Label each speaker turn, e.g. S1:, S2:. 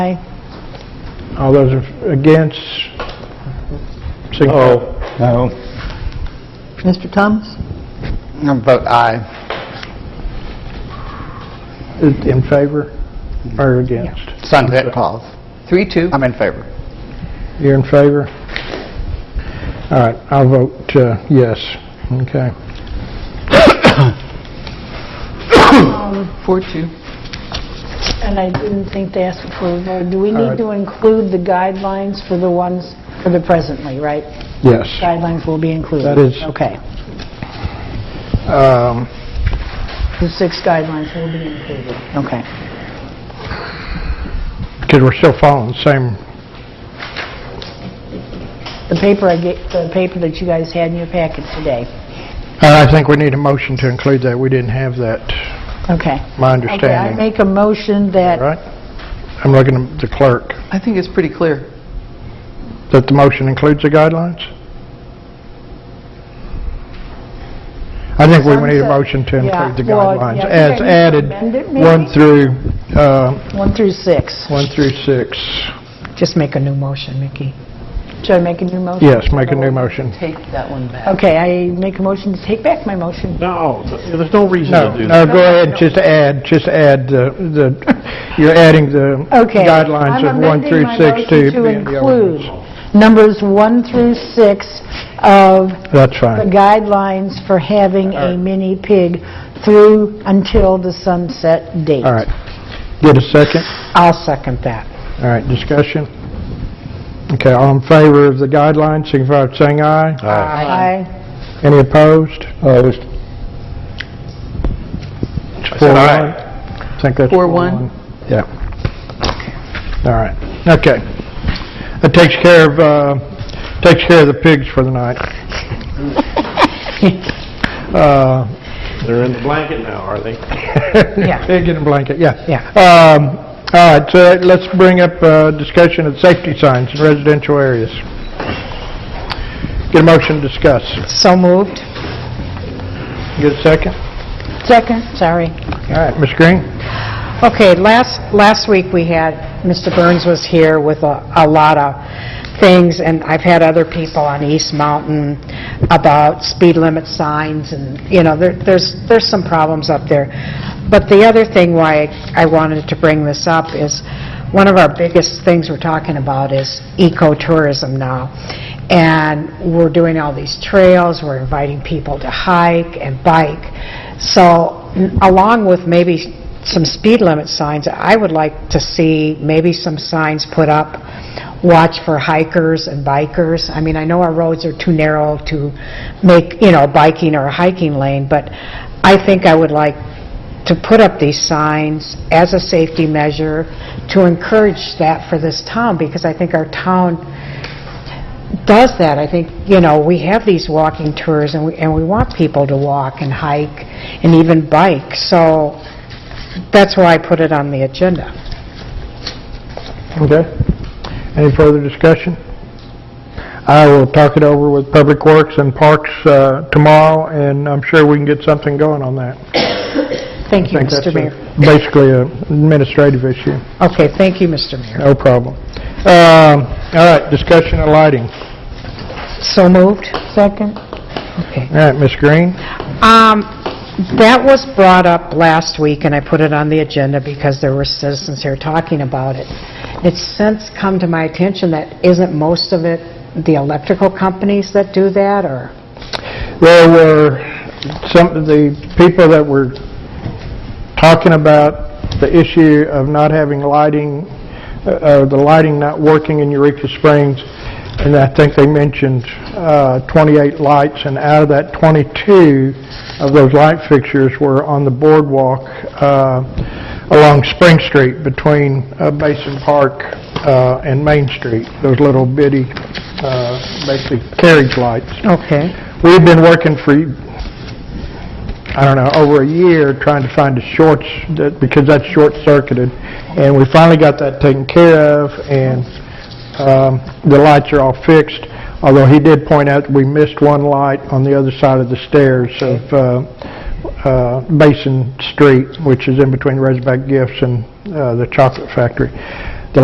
S1: Aye.
S2: All those are against? Oh.
S3: No.
S1: Mr. Thomas?
S3: I vote aye.
S2: In favor or against?
S3: Sunset clause.
S1: Three, two.
S3: I'm in favor.
S2: You're in favor? All right, I'll vote uh, yes. Okay.
S4: Um,
S1: Four, two.
S4: And I didn't think to ask for a vote. Do we
S2: All right.
S4: need to include the guidelines for the ones, for the presently, right?
S2: Yes.
S4: Guidelines will be included?
S2: That is-
S4: Okay.
S2: Um,
S4: The six guidelines will be included. Okay.
S2: Because we're still following the same,
S4: The paper I get, the paper that you guys had in your packet today.
S2: and Uh, I think we need a motion to include that. We didn't have that,
S4: Okay.
S2: my
S4: Okay, I
S2: understanding.
S4: make a motion that,
S2: Right? I'm looking at the clerk.
S1: I think it's pretty clear.
S2: That the motion includes the guidelines? I think we need a motion to include the
S4: Yeah, well,
S2: guidelines
S4: yeah,
S2: as
S4: maybe
S2: added,
S4: amend it, maybe?
S2: one through, uh,
S4: one through six.
S2: one through six.
S1: Just make a new motion, Mickey.
S4: Should I make a new motion?
S2: Yes, make a new
S4: Oh.
S2: motion.
S1: Take that one back.
S4: Okay, I make a motion to take back my motion.
S5: No, there's no reason
S2: No,
S5: to do that.
S2: no, go ahead, just add, just add the, the. you're adding the
S4: Okay.
S2: guidelines of
S4: I'm
S2: one
S4: amending
S2: through
S4: my
S2: six
S4: motion
S2: to be in the ordinance.
S4: include numbers one through six of
S2: That's
S4: the
S2: fine.
S4: guidelines for having a mini pig through until the sunset date.
S2: All right. Get a second?
S4: I'll second that.
S2: All right, discussion? Okay, all in favor of the guidelines, signify by saying aye.
S4: Aye.
S2: Any opposed? Uh, Opposed. It's
S3: I said
S2: four one.
S3: aye.
S2: I think that's
S1: Four
S2: four
S1: one.
S2: one. Yeah. All right, okay. That takes care of, uh, takes care of the pigs for the night. Uh,
S5: They're in the blanket now, are they?
S1: Yeah.
S2: Pig in a blanket, yeah.
S1: Yeah.
S2: Um, All right, so let's bring up uh, discussion of safety signs in residential areas. Get a motion to discuss.
S1: So moved.
S2: Get a second?
S4: Second, sorry.
S2: All right, Ms. Green?
S1: Okay, last, last week we had, Mr. Burns was here with a, a lot of things, and I've had other people on East Mountain about speed limit signs, and, you know, there, there's, there's some problems up there. But the other thing why I wanted to bring this up is, one of our biggest things we're talking about is ecotourism now. and we're doing all these trails, we're inviting people to hike and bike. So n- along with maybe some speed limit signs, I would like to see maybe some signs put up, watch for hikers and bikers. I mean, I know our roads are too narrow to make, you know, biking or a hiking lane, but I think I would like to put up these signs as a safety measure to encourage that for this town, because I think our town does that. I think, you know, we have these walking tours, and we, and we want people to walk and hike and even bike, so that's why I put it on the agenda.
S2: Okay. Any further discussion? I will talk it over with Public Works and Parks uh, tomorrow, and I'm sure we can get something going on that.
S1: Thank you,
S2: I think that's
S1: Mr.
S2: a-
S1: Mayor.
S2: Basically, an administrative issue.
S1: Okay, thank you, Mr. Mayor.
S2: No problem. Um, All right, discussion of lighting.
S1: So moved?
S4: Second?
S1: Okay.
S2: All right, Ms. Green?
S1: Um, that was brought up last week, and I put it on the agenda because there were citizens here talking about it. It's since come to my attention that isn't most of it the electrical companies that do that, or?
S2: There were some, of the people that were talking about the issue of not having lighting, uh, uh, the lighting not working in Eureka Springs, and I think they mentioned uh, 28 lights, and out of that, 22 of those light fixtures were on the boardwalk uh, along Spring Street between uh, Basin Park uh, and Main Street, those little bitty, uh, basically carriage lights.
S1: Okay.
S2: We've been working for, I don't know, over a year trying to find a shorts, that- because that's short-circuited. And we finally got that taken care of, and um, the lights are all fixed, although he did point out that we missed one light on the other side of the stairs of uh, uh, Basin Street, which is in between Razorback Gifts and uh, the Chocolate Factory.